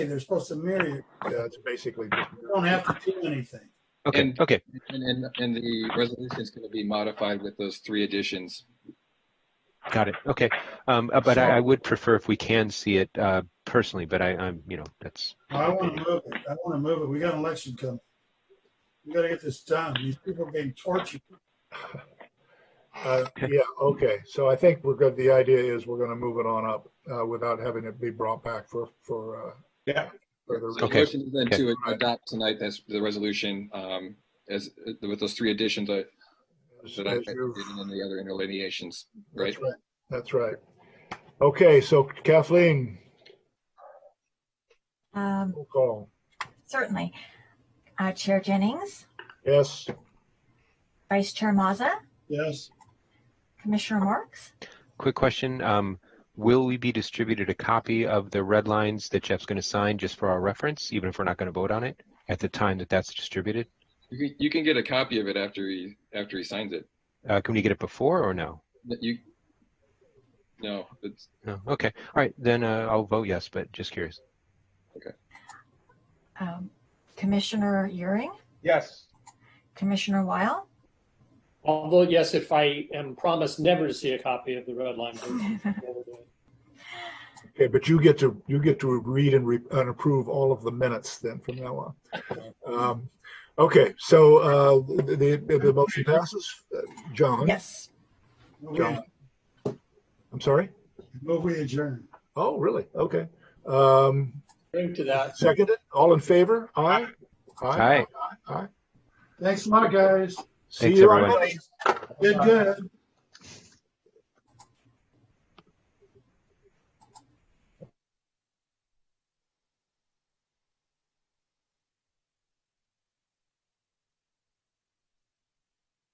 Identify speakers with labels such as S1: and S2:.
S1: they're supposed to mirror you.
S2: Yeah, it's basically just.
S1: You don't have to do anything.
S3: Okay,
S4: And-
S3: okay.
S4: And, and, and the resolution is going to be modified with those three additions.
S3: Got it. Okay. Um, uh, but I, I would prefer if we can see it uh, personally, but I, I'm, you know, that's.
S1: I want to move it. I want to move it. We got an election coming. We got to get this done. These people are being tortured.
S2: Uh, Yeah, okay, so I think we're good, the idea is we're gonna move it on up uh, without having it be brought back for, for. uh,
S5: Yeah.
S2: further-
S4: So the
S3: Okay.
S4: motion is Then
S3: Okay.
S4: to adopt tonight, that's the resolution, um, as, with those three additions that
S2: as-
S4: that I,
S2: as
S4: and
S2: you've-
S4: then the other interlineations, right?
S2: That's right. That's right. Okay, so Kathleen,
S6: Um,
S2: roll call.
S6: Certainly. Uh, Chair Jennings,
S2: Yes,
S6: Vice Chair Mazza,
S1: Yes.
S6: Commissioner Marks.
S3: Quick question. Um, will we be distributed a copy of the red lines that Jeff's going to sign just for our reference, even if we're not going to vote on it at the time that that's distributed?
S4: You can, you can get a copy of it after he, after he signs it.
S3: Uh, can we get it before or no?
S4: That you, no, it's,
S3: No. Okay. All right. Then uh, I'll vote yes, but just curious.
S6: Um, Commissioner Euring,
S5: Yes.
S6: Commissioner Weil.
S7: I'll vote yes if I am promised never to see a copy of the red line. version.
S2: okay, but you get to, you get to read and re, and approve all of the minutes then from now on. Um, Okay, so uh, the, the, the motion passes. Uh, John?
S6: Yes.
S1: Move we-
S2: John? I'm sorry?
S1: Move we adjourn.
S2: Oh, really? Okay. Um,
S7: Drink to that.
S2: Seconded, all in favor? Aye?
S3: Aye.
S1: Thanks a lot, guys.
S2: See
S3: Thanks,
S2: you on
S3: everyone.
S2: Monday.
S1: Did good.